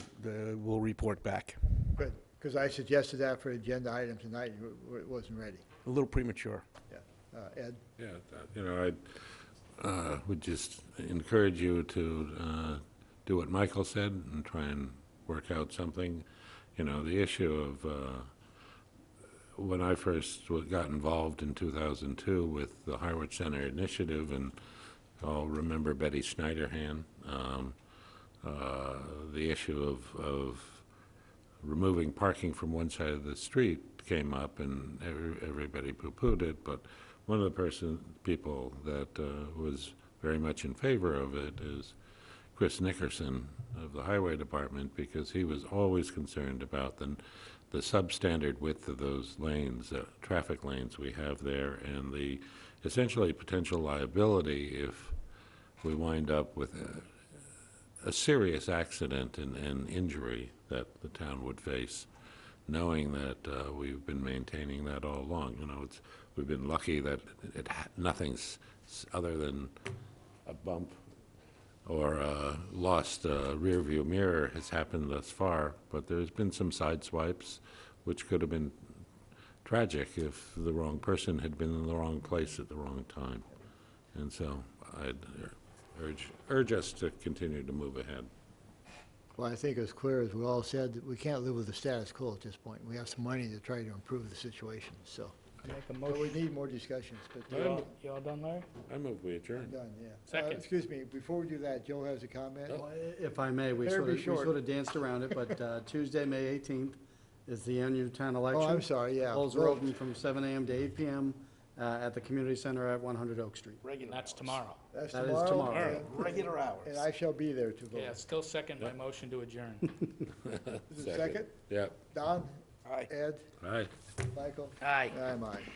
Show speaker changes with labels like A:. A: uh, we'll report back.
B: Good, because I suggested that for agenda item tonight, you w- w- it wasn't ready.
A: A little premature.
B: Yeah. Uh, Ed,
C: Yeah, that- you know, I uh, would just encourage you to uh, do what Michael said and try and work out something. You know, the issue of, uh, when I first wa- got involved in 2002 with the Harwich Center Initiative, and I'll remember Betty Schneiderhan, um, uh, the issue of, of removing parking from one side of the street came up, and every- everybody poo-pooed it, but one of the person, people that uh, was very much in favor of it is Chris Nickerson of the Highway Department, because he was always concerned about the, the substandard width of those lanes, uh, traffic lanes we have there, and the essentially potential liability if we wind up with uh, a serious accident and, and injury that the town would face, knowing that uh, we've been maintaining that all along. You know, it's, we've been lucky that it, ha- nothing's s- other than a bump or a lost uh, rearview mirror has happened thus far, but there's been some side swipes, which could have been tragic if the wrong person had been in the wrong place at the wrong time. And so I'd urge, urge us to continue to move ahead.
B: well, I think it's clear, as we all said, that we can't live with the status quo at this point. We have some money to try to improve the situation, so.
D: Make a
B: But we
D: motion.
B: need more discussions, but.
D: You all- you all done, Larry?
C: I move we
B: I'm
C: adjourn.
B: Done, yeah. Uh,
D: Second.
B: Excuse me, before we do that, Joe has a comment?
C: No.
E: If I may, we
B: Better
E: sort
B: be
E: of, we
B: short.
E: sort of danced around it, but uh, Tuesday, May 18th is the annual town election.
B: Oh, I'm sorry, yeah.
E: Polls are
B: Well,
E: open from 7 AM to 8 PM uh, at the community center at 100 Oak Street.
D: Regular. That's tomorrow.
B: That's
E: That is
B: tomorrow.
E: tomorrow.
B: and- And I shall be there to vote.
D: Yeah, still second my motion to adjourn.
B: Is it second?
C: Yeah.
B: Don?
D: Aye.
B: Ed?
C: Aye.
B: Michael?
D: Aye.
B: I'm aye.